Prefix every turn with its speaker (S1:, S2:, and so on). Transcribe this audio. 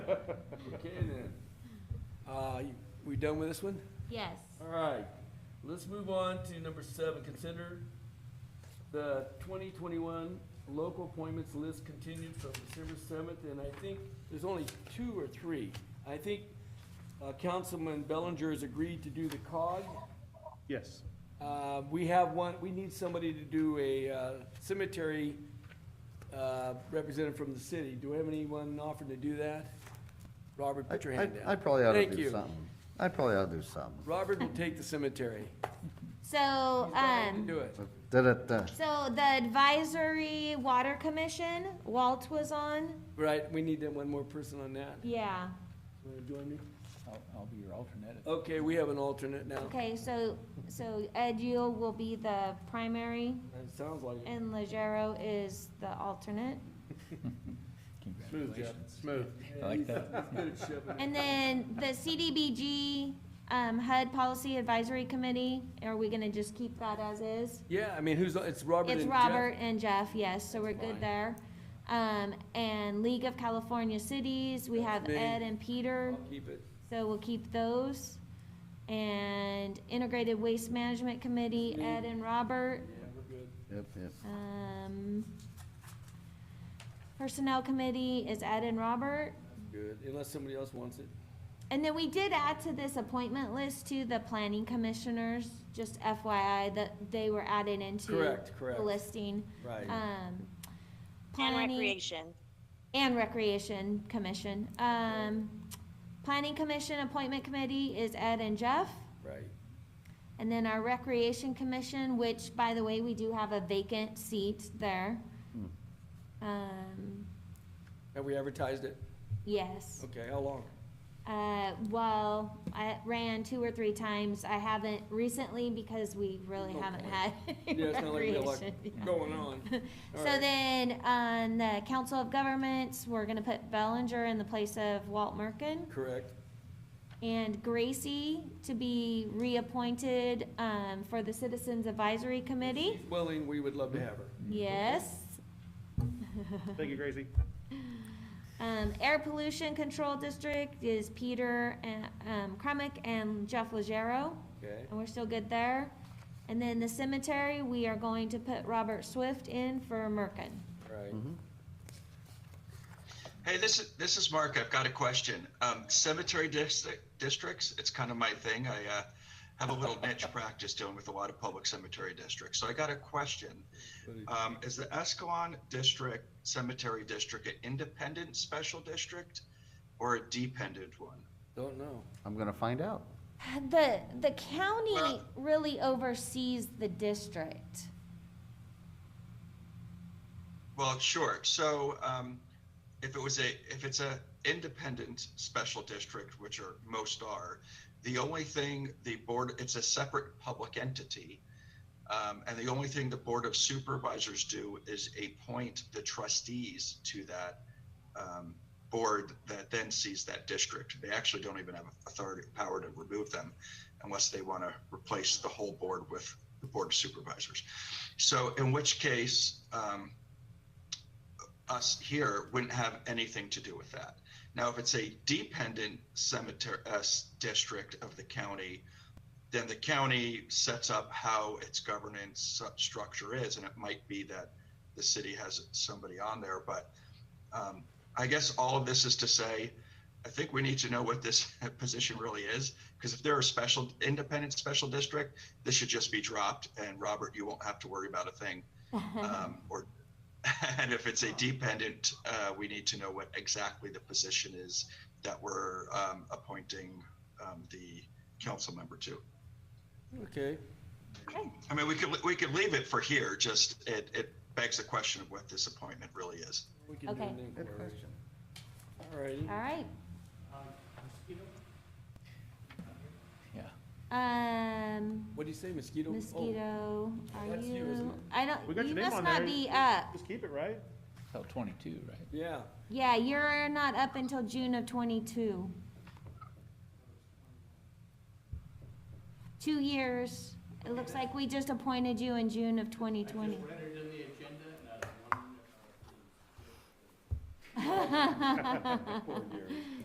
S1: Okay then. Uh, you- we done with this one?
S2: Yes.
S1: All right, let's move on to number seven, consider the twenty twenty-one local appointments list continued from December seventh, and I think there's only two or three. I think, uh, Councilman Bellinger has agreed to do the cog.
S3: Yes.
S1: Uh, we have one, we need somebody to do a, uh, cemetery, uh, representative from the city. Do we have anyone offering to do that? Robert,
S4: I,
S1: put your hand down.
S4: I- I probably ought to
S1: Thank
S4: do
S1: you.
S4: something. I probably ought to do something.
S1: Robert will take the cemetery. He's
S2: So,
S1: not
S2: um.
S1: going to Do it.
S4: Da-da-da.
S2: So the advisory water commission, Walt was on.
S1: Right, we need that one more person on that.
S2: Yeah.
S1: Wanna join me?
S3: I'll, I'll be your alternate.
S1: Okay, we have an alternate now.
S2: Okay, so, so Ed Yule will be the primary
S1: That sounds like it.
S2: and Legero is the alternate.
S3: Smooth, Jeff, smooth. I
S1: He's-
S3: like that.
S1: he's good at shoving it.
S2: And then the CDBG, um, HUD Policy Advisory Committee, are we gonna just keep that as is?
S1: Yeah, I mean, who's, it's Robert
S2: It's
S1: and Jeff.
S2: Robert and Jeff, yes, so we're
S1: Fine.
S2: good there. Um, and League of California Cities, we have
S1: That's me.
S2: Ed and Peter.
S1: I'll keep it.
S2: So we'll keep those. And Integrated Waste Management Committee, Ed and Robert.
S1: Yeah, we're good.
S4: Yep, yep.
S2: Um, Personnel Committee is Ed and Robert.
S1: Good, unless somebody else wants it.
S2: And then we did add to this appointment list to the planning commissioners, just FYI, that they were added into
S1: Correct, correct.
S2: the listing.
S1: Right.
S2: Um,
S5: And
S2: planning-
S5: recreation.
S2: And Recreation Commission. Um, Planning Commission Appointment Committee is Ed and Jeff.
S1: Right.
S2: And then our Recreation Commission, which, by the way, we do have a vacant seat there.
S1: Hmm.
S2: Um,
S1: Have we advertised it?
S2: yes.
S1: Okay, how long?
S2: Uh, well, I ran two or three times. I haven't recently because we really
S1: No
S2: haven't
S1: point.
S2: had
S1: Yeah, it's not like we have
S2: recreation.
S1: like going on. All
S2: So
S1: right.
S2: then, on the Council of Governments, we're gonna put Bellinger in the place of Walt Merkin.
S1: Correct.
S2: And Gracie to be reappointed, um, for the Citizens Advisory Committee.
S1: She's Willing, we would love to have her.
S2: Yes.
S3: Thank you, Gracie.
S2: Um, Air Pollution Control District is Peter, and, um, Kremick and Jeff Legero,
S1: Okay,
S2: and we're still good there. And then the cemetery, we are going to put Robert Swift in for Merkin.
S1: right.
S3: Mm-hmm.
S6: Hey, this is this is Mark. I've got a question. Um, cemetery district districts. It's kind of my thing. I uh, have a little niche practice dealing with a lot of public cemetery districts. So I got a question. Um, is the Escalon District Cemetery District an independent special district or a dependent one?
S1: Don't know.
S4: I'm gonna find out.
S2: The, the county
S6: Well-
S2: really oversees the district.
S6: Well, sure. So um, if it was a if it's a independent special district, which are most are, the only thing the board it's a separate public entity, um, and the only thing the board of supervisors do is appoint the trustees to that um, board that then sees that district. They actually don't even have authority power to remove them unless they want to replace the whole board with the board of supervisors. So in which case, um, us here wouldn't have anything to do with that. Now, if it's a dependent cemetery uh, s- district of the county, then the county sets up how its governance s- structure is, and it might be that the city has somebody on there. But um, I guess all of this is to say, I think we need to know what this position really is, because if they're a special independent special district, this should just be dropped, and Robert, you won't have to worry about a thing um, or, and if it's a dependent, uh, we need to know what exactly the position is that we're, um, appointing, um, the council member to.
S1: Okay,
S6: I mean, we could, we could leave it for here, just it, it begs the question of what this appointment really is.
S1: we can do
S2: Okay.
S1: an inquiry. All righty.
S2: All right.
S3: Yeah.
S2: Um,
S1: What'd you say, mosquito? Oh,
S2: mosquito, are
S1: That's you, isn't
S2: you,
S1: it?
S2: I
S7: We
S2: don't,
S7: got
S2: you
S7: your name
S2: must
S7: on
S2: not
S7: there.
S2: be up.
S7: Just keep it, right?
S3: Till twenty-two, right?
S1: Yeah,
S2: Yeah, you're not up until June of twenty-two. Two years. It looks like we just appointed you in June of twenty twenty.
S1: poor Gary.